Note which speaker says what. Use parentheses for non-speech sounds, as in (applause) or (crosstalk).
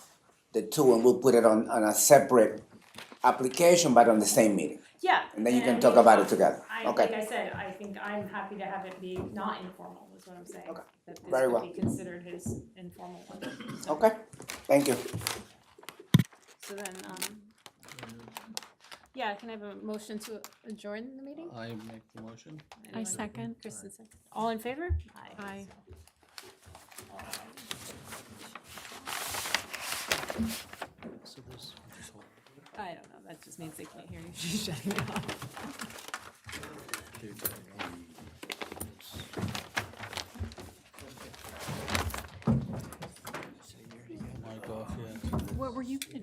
Speaker 1: the two, and we'll put it on, on a separate application, but on the same meeting.
Speaker 2: Yeah.
Speaker 1: And then you can
Speaker 2: I
Speaker 1: talk
Speaker 2: mean,
Speaker 1: about it together.
Speaker 2: I, like
Speaker 1: Okay,
Speaker 2: I said, I think I'm happy to have it be not informal, is what I'm saying.
Speaker 1: Okay.
Speaker 2: That this
Speaker 1: Very
Speaker 2: could
Speaker 1: well.
Speaker 2: be considered his informal one. So-
Speaker 1: okay, thank you.
Speaker 2: So then, um, yeah, can I have a motion to adjourn the meeting?
Speaker 3: I make the motion.
Speaker 2: Anyone?
Speaker 4: second.
Speaker 2: Kristen second. All in favor?
Speaker 4: Aye.
Speaker 3: So this- this whole-
Speaker 2: I don't know, that just means they can't hear you, (laughs) she's shutting it off.